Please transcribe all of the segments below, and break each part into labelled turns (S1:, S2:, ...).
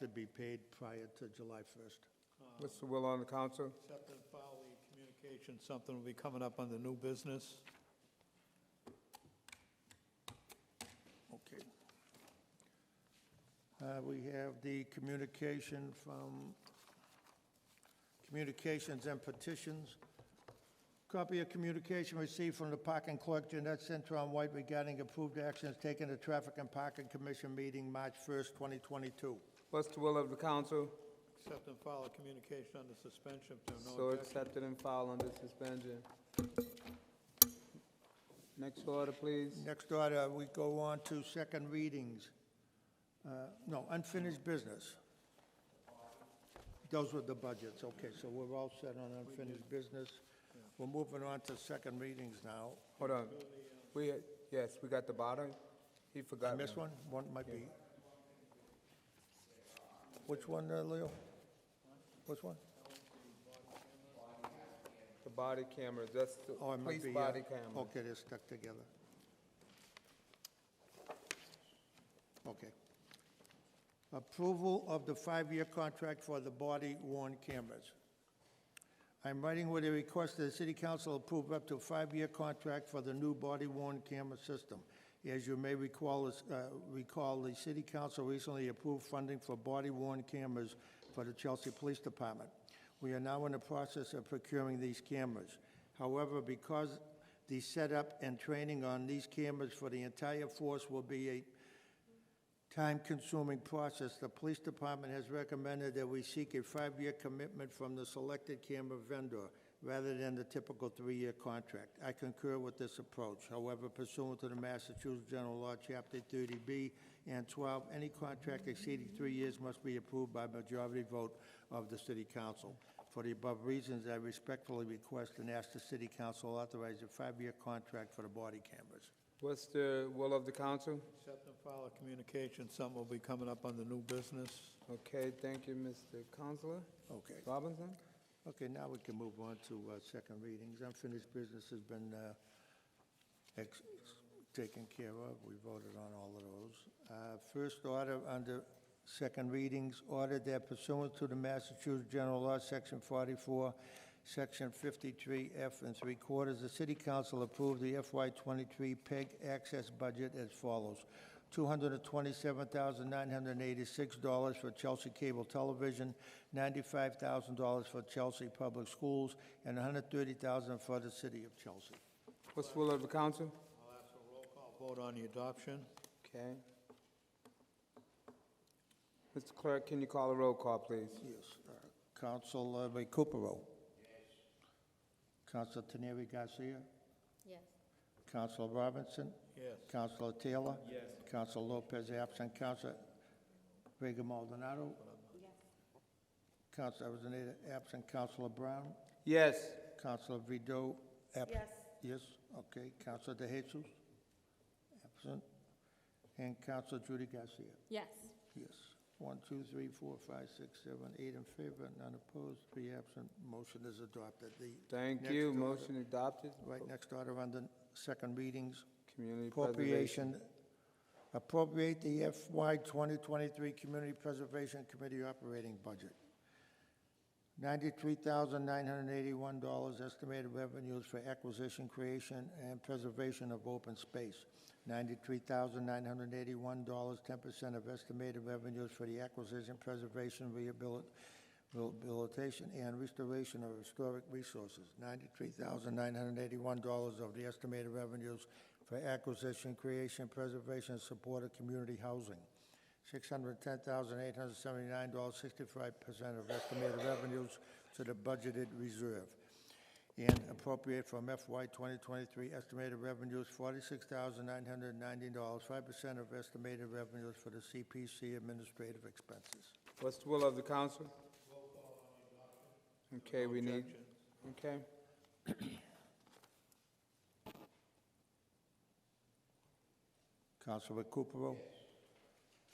S1: to be paid prior to July 1st.
S2: What's the will on the council?
S3: Accept and file the communication, something will be coming up on the new business.
S1: Okay. Uh, We have the communication from, communications and petitions. Copy of communication received from the parking clerk Jeanette Centron White regarding approved actions taken at Traffic and Parking Commission meeting March 1st, 2022.
S2: What's the will of the council?
S3: Accept and file a communication under suspension if there are no
S2: So
S3: objections.
S2: accepted and filed under suspension. Next order, please.
S1: Next order, we go on to second readings. Uh, No, unfinished business. Those were the budgets, okay, so we're all set on unfinished business. We're moving on to second readings now.
S2: Hold on. We, yes, we got the bottom. He forgot.
S1: I missed one? One might be. Which one, uh, Leo? Which one?
S2: The body cameras, that's the
S1: Oh, it might
S2: police
S1: be. uh,
S2: body camera.
S1: Okay, they're stuck together. Okay. Approval of the five-year contract for the body worn cameras. I'm writing with a request that the city council approve up to a five-year contract for the new body worn camera system. As you may recall, this- uh, recall, the city council recently approved funding for body worn cameras for the Chelsea Police Department. We are now in the process of procuring these cameras. However, because the setup and training on these cameras for the entire force will be a time-consuming process, the police department has recommended that we seek a five-year commitment from the selected camera vendor rather than the typical three-year contract. I concur with this approach. However, pursuant to the Massachusetts General Law, Chapter 30B and 12, any contract exceeding three years must be approved by majority vote of the city council. For the above reasons, I respectfully request and ask the city council authorize a five-year contract for the body cameras.
S2: What's the will of the council?
S3: Accept and file a communication, something will be coming up on the new business.
S2: Okay, thank you, Mr. Counselor.
S1: Okay.
S2: Robinson?
S1: Okay, now we can move on to uh, second readings. Unfinished business has been uh, ex- taken care of. We voted on all of those. Uh, First order under second readings, order that pursuant to the Massachusetts General Law, Section 44, Section 53F and 3 quarters, the city council approved the FY23 PEG E access budget as follows. $227,986 for Chelsea Cable Television, $95,000 for Chelsea Public Schools, and $130,000 for the city of Chelsea.
S2: What's the will of the council?
S3: I'll ask for a roll call vote on the adoption.
S2: Okay. Mr. Clerk, can you call a roll call, please?
S1: Yes. Counsel Recupero. Yes. Counsel Teneri Garcia.
S4: Yes.
S1: Counsel Robinson.
S3: Yes.
S1: Counsel Taylor. Yes. Counsel Lopez absent. Counsel Vega Maldonado.
S4: Yes.
S1: Counsel Arizona absent. Counsel Brown.
S2: Yes.
S1: Counsel Vido absent.
S4: Yes.
S1: Yes, okay. Counsel De Jesus absent. And Counsel Judy Garcia.
S4: Yes.
S1: Yes. One, two, three, four, five, six, seven, eight in favor, none opposed, three absent. Motion is adopted. The
S2: Thank
S1: next
S2: you.
S1: order-
S2: Motion adopted.
S1: Right, next order on the second readings,
S2: Community preservation.
S1: appropriation. Appropriate the FY 2023 Community Preservation Committee operating budget. $93,981 estimated revenues for acquisition, creation, and preservation of open space. $93,981, 10% of estimated revenues for the acquisition, preservation, rehabil- rehabilitation, and restoration of historic resources. $93,981 of the estimated revenues for acquisition, creation, preservation, and support of community housing. $610,879, 65% of estimated revenues to the budgeted reserve. And appropriate from FY 2023 estimated revenues, $46,990, 5% of estimated revenues for the CPC administrative expenses.
S2: What's the will of the council? Okay, we need,
S3: Objection.
S2: okay.
S1: Counsel Recupero?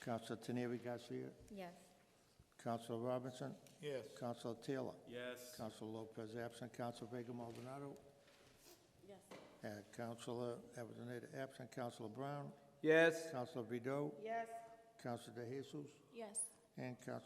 S1: Counsel Teneri Garcia?
S4: Yes.
S1: Counsel Robinson?
S3: Yes.
S1: Counsel Taylor?
S5: Yes.
S1: Counsel Lopez absent. Counsel Vega Maldonado?
S4: Yes.
S1: Uh, Counselor Avellaneda absent, Counselor Brown,
S2: Yes.
S1: Counselor Vido,
S4: Yes.
S1: Counselor De Jesus,
S4: Yes.
S1: and Council